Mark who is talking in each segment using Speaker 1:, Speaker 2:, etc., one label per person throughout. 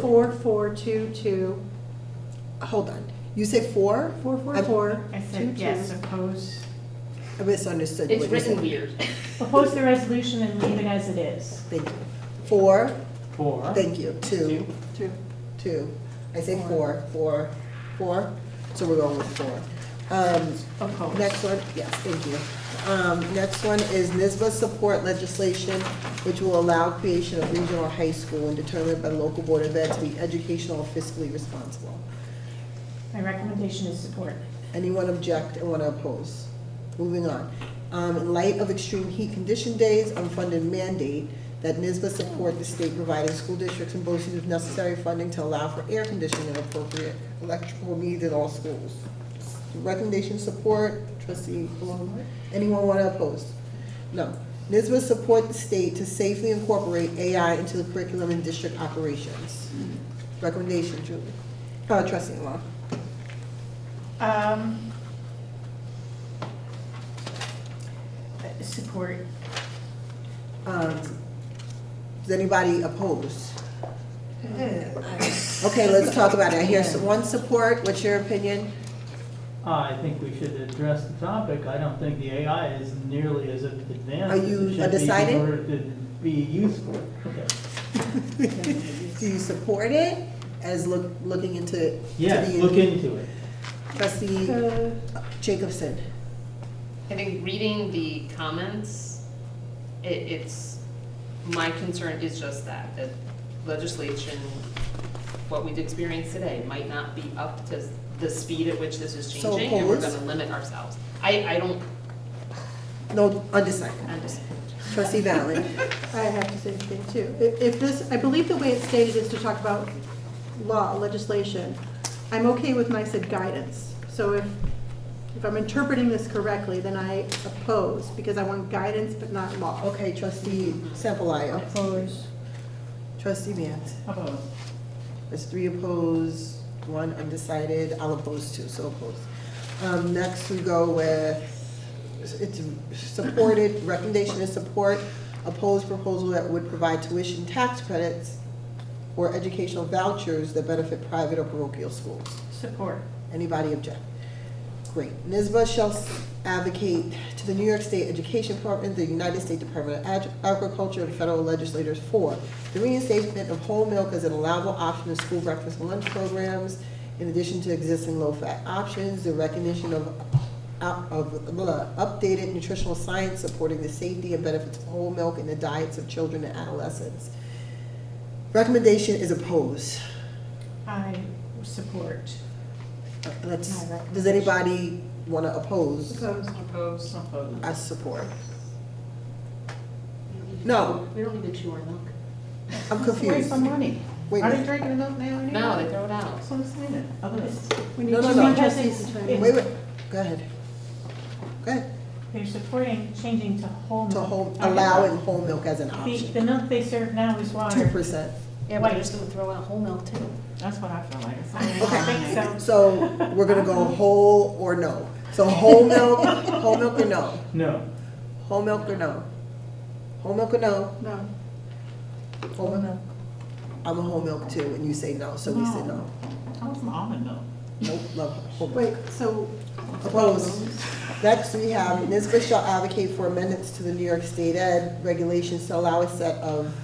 Speaker 1: Four, four, two, two,
Speaker 2: Hold on. You say four?
Speaker 1: four, four,
Speaker 2: I-
Speaker 1: four,
Speaker 3: I
Speaker 1: two,
Speaker 3: said, yes,
Speaker 1: two.
Speaker 3: oppose,
Speaker 2: I misunderstood.
Speaker 4: It's
Speaker 2: what you said.
Speaker 4: written weird.
Speaker 3: oppose the resolution and leave it as it is.
Speaker 2: Thank you. Four,
Speaker 5: Four.
Speaker 2: thank you. Two,
Speaker 1: Two.
Speaker 2: two. I say four, four, four. So we're going with four. Um,
Speaker 3: Oppose.
Speaker 2: Next one, yes, thank you. Um, Next one is NISBA support legislation, which will allow creation of regional high school and determined by the local board of ed to be educational and fiscally responsible.
Speaker 3: My recommendation is support.
Speaker 2: Anyone object and want to oppose? Moving on. Um, In light of extreme heat condition days, unfunded mandate that NISBA support the state providing school districts and BOCES with necessary funding to allow for air conditioning and appropriate electrical needs at all schools. Recommendation support, trustee Blum. Anyone want to oppose? No. NISBA support the state to safely incorporate AI into the curriculum and district operations. Recommendation, Julie. Uh, Trustee Law.
Speaker 3: Um, uh, Support.
Speaker 2: Um, Is anybody opposed? Okay, let's talk about it. I hear some- one support. What's your opinion?
Speaker 5: I think we should address the topic. I don't think the AI is nearly as advanced.
Speaker 2: Are you
Speaker 5: as it should be
Speaker 2: undecided?
Speaker 5: In order to be useful. Okay.
Speaker 2: Do you support it as look, looking into? to
Speaker 5: Yes,
Speaker 2: the-
Speaker 5: look into it.
Speaker 2: Trustee
Speaker 1: Uh,
Speaker 2: Jacobson.
Speaker 4: I think reading the comments, it, it's, my concern is just that, that legislation, what we've experienced today might not be up to the speed at which this is
Speaker 2: So
Speaker 4: changing, and we're
Speaker 2: opposed?
Speaker 4: gonna limit ourselves. I, I don't,
Speaker 2: No, undecided.
Speaker 4: I'm just,
Speaker 2: Trustee Valen.
Speaker 1: I have to say the thing too. If if this, I believe the way it's stated is to talk about law, legislation. I'm okay with when I said guidance. So if, if I'm interpreting this correctly, then I oppose because I want guidance but not law.
Speaker 2: Okay, trustee Sampalayo.
Speaker 3: Oppose.
Speaker 2: Trustee Mance.
Speaker 3: Oppose.
Speaker 2: There's three opposed, one undecided. I'll oppose two, so opposed. Um, next we go with, it's supported, recommendation is support, opposed proposal that would provide tuition tax credits or educational vouchers that benefit private or parochial schools.
Speaker 3: Support.
Speaker 2: Anybody object? Great. NISBA shall advocate to the New York State Education Department, the United States Department of Ag- Agriculture, and federal legislators for the reinstatement of whole milk as an allowable option in school breakfast and lunch programs, in addition to existing low-fat options, the recognition of, up- of blah, updated nutritional science supporting the safety and benefits of whole milk in the diets of children and adolescents. Recommendation is opposed.
Speaker 3: I support.
Speaker 2: Uh, Let's, does anybody want to oppose?
Speaker 1: Opposed.
Speaker 4: oppose.
Speaker 3: Oppose.
Speaker 2: as support. No.
Speaker 4: We don't need to chew our milk.
Speaker 2: I'm confused.
Speaker 3: Waste of money.
Speaker 2: Wait,
Speaker 3: Are they
Speaker 2: wait,
Speaker 3: drinking milk now anyway?
Speaker 4: No, they throw it out.
Speaker 3: So it's needed. Oppose.
Speaker 1: We need
Speaker 2: No, no,
Speaker 1: to
Speaker 2: no.
Speaker 1: be trustees to time.
Speaker 2: wait, go ahead. Go ahead,
Speaker 3: They're supporting changing to whole milk.
Speaker 2: to whole,
Speaker 3: I don't-
Speaker 2: allowing whole milk as an
Speaker 3: The,
Speaker 2: option,
Speaker 3: the milk they serve now is
Speaker 2: two
Speaker 3: water.
Speaker 2: percent.
Speaker 4: Yeah,
Speaker 3: but they're just
Speaker 4: gonna throw out whole milk too.
Speaker 3: That's what I feel like.
Speaker 2: Okay.
Speaker 3: I think so.
Speaker 2: So we're gonna go whole or no. So whole milk, whole milk or no?
Speaker 5: No.
Speaker 2: Whole milk or no? Whole milk or no?
Speaker 1: No.
Speaker 2: Whole milk. I'm a whole milk too, and you say no, so we say no.
Speaker 3: I want some almond milk.
Speaker 2: Nope, love whole milk.
Speaker 1: Wait, so
Speaker 2: Opposed. Next, we have NISBA shall advocate for amendments to the New York State Ed regulations to allow a set of,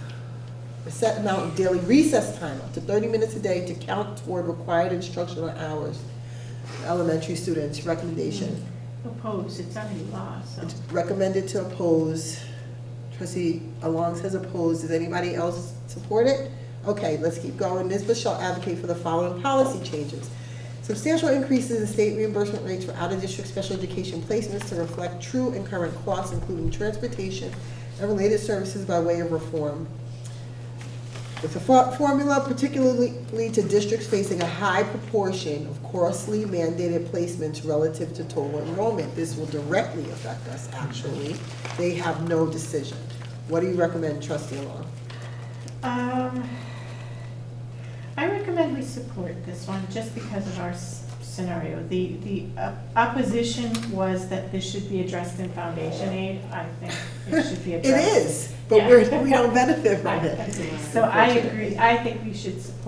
Speaker 2: a set amount of daily recess time, up to thirty minutes a day, to count toward required instructional hours. for Elementary students, recommendation,
Speaker 3: Oppose, it's under law, so.
Speaker 2: It's recommended to oppose. Trustee Along says opposed, does anybody else support it? Okay, let's keep going. NISBA shall advocate for the following policy changes. Substantial increases in state reimbursement rates for out-of-district special education placements to reflect true and current costs, including transportation and related services by way of reform. With the fo- formula particularly to districts facing a high proportion of costly mandated placements relative to total enrollment. This will directly affect us, actually. They have no decision. What do you recommend, trustee Long?
Speaker 3: Um, I recommend we support this one just because of our s- scenario. The, the op- opposition was that this should be addressed in foundation aid. I think it should be
Speaker 2: It
Speaker 3: addressed.
Speaker 2: is, but we're, we don't benefit from it.
Speaker 3: So I agree, I think we should support